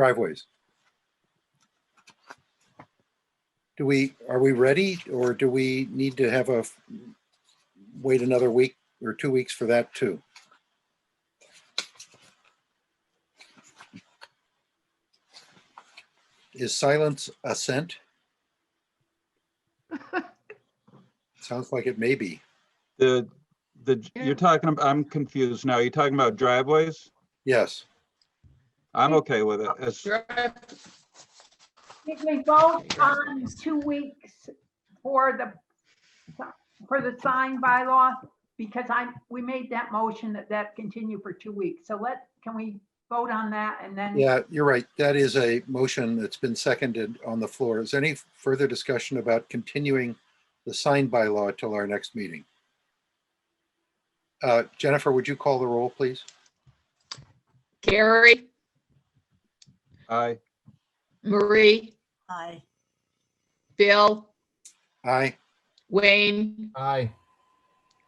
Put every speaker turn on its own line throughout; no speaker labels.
driveways. Do we, are we ready or do we need to have a, wait another week or two weeks for that too? Is silence assent? Sounds like it may be.
The, the,
Yeah.
you're talking, ab- I'm confused now. You're talking about driveways?
Yes.
I'm okay with it. As-
Did we vote on two weeks for the, for the sign bylaw? Because I, we made that motion that that continue for two weeks. So let, can we vote on that and then?
Yeah, you're right. That is a motion that's been seconded on the floor. Is there any further discussion about continuing the sign bylaw till our next meeting? Uh, Jennifer, would you call the roll, please?
Gary,
Aye,
Marie,
Aye.
Bill,
Aye.
Wayne,
Aye.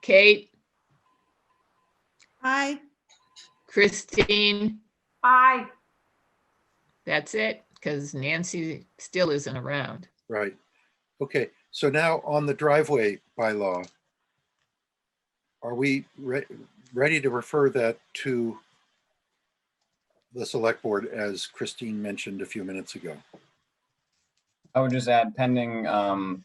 Kate,
Aye.
Christine.
Aye,
That's it, because Nancy still isn't around.
Right. Okay, so now on the driveway bylaw. Are we re- ready to refer that to the select board as Christine mentioned a few minutes ago?
I would just add pending, um,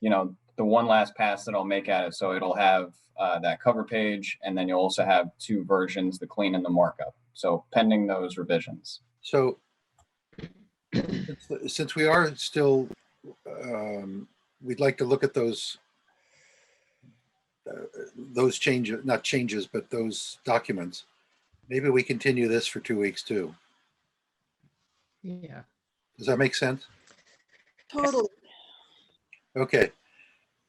you know, the one last pass that I'll make at it. So it'll have, uh, that cover page and then you'll also have two versions, the clean and the markup. So pending those revisions.
So since- since we are still, um, we'd like to look at those uh, those changes, not changes, but those documents. Maybe we continue this for two weeks too.
Yeah.
Does that make sense?
Totally.
Okay.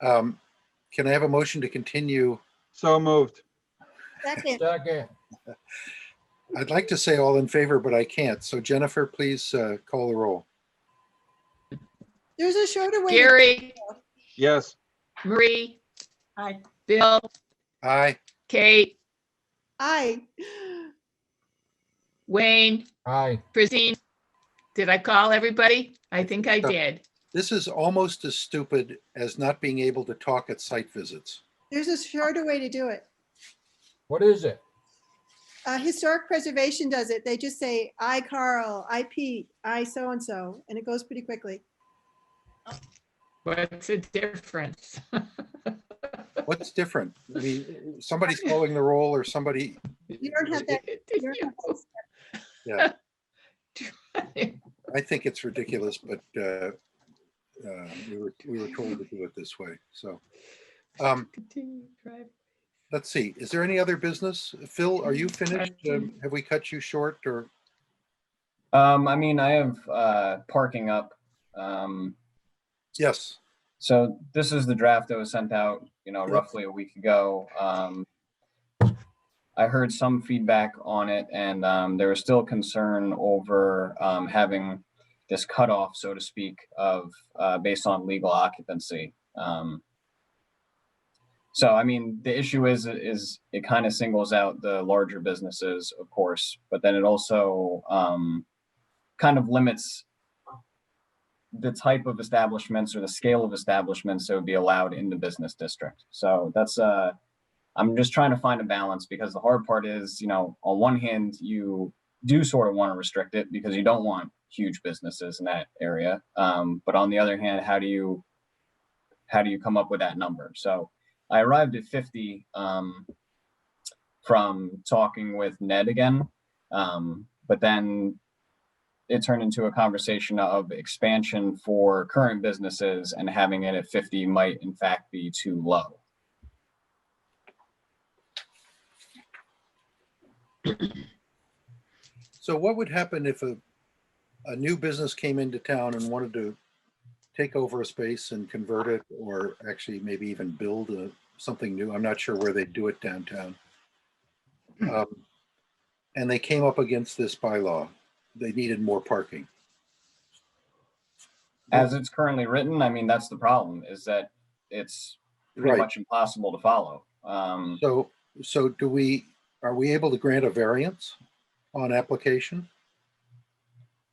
Um, Can I have a motion to continue?
so moved.
Second.
Second.
I'd like to say all in favor, but I can't. So Jennifer, please uh, call the roll.
There's a shorter way. to-
Gary,
Yes,
Marie,
Aye.
Bill,
Aye.
Kate,
Aye.
Wayne,
Aye.
Christine. Did I call everybody? I think I did.
This is almost as stupid as not being able to talk at site visits.
There's a shorter way to do it.
What is it?
Uh, historic preservation does it. They just say, I Carl, I Pete, I so-and-so, and it goes pretty quickly.
What's the difference?
What's different? I mean, somebody's calling the roll or somebody,
You don't have that. you don't have that step.
I think it's ridiculous, but uh, uh, we were, we were told to do it this way. So um, let's see, is there any other business? Phil, are you finished? Um, Have we cut you short or?
Um, I mean, I have, uh, parking up. Um,
Yes,
so this is the draft that was sent out, you know,
Yep.
roughly a week ago. Um, I heard some feedback on it and, um, there was still concern over, um, having this cutoff, so to speak, of, uh, based on legal occupancy. Um, so, I mean, the issue is, is it kind of singles out the larger businesses, of course, but then it also, um, kind of limits the type of establishments or the scale of establishments that would be allowed in the business district. So that's, uh, I'm just trying to find a balance because the hard part is, you know, on one hand, you do sort of want to restrict it because you don't want huge businesses in that area. Um, but on the other hand, how do you, how do you come up with that number? So I arrived at 50, um, from talking with Ned again. Um, but then it turned into a conversation of expansion for current businesses and having it at 50 might in fact be too low.
So what would happen if a, a new business came into town and wanted to take over a space and convert it or actually maybe even build a, something new? I'm not sure where they do it downtown. Um, And they came up against this bylaw. They needed more parking.
As it's currently written, I mean, that's the problem is that it's pretty
Right.
much impossible to follow. Um,
So, so do we, are we able to grant a variance on application?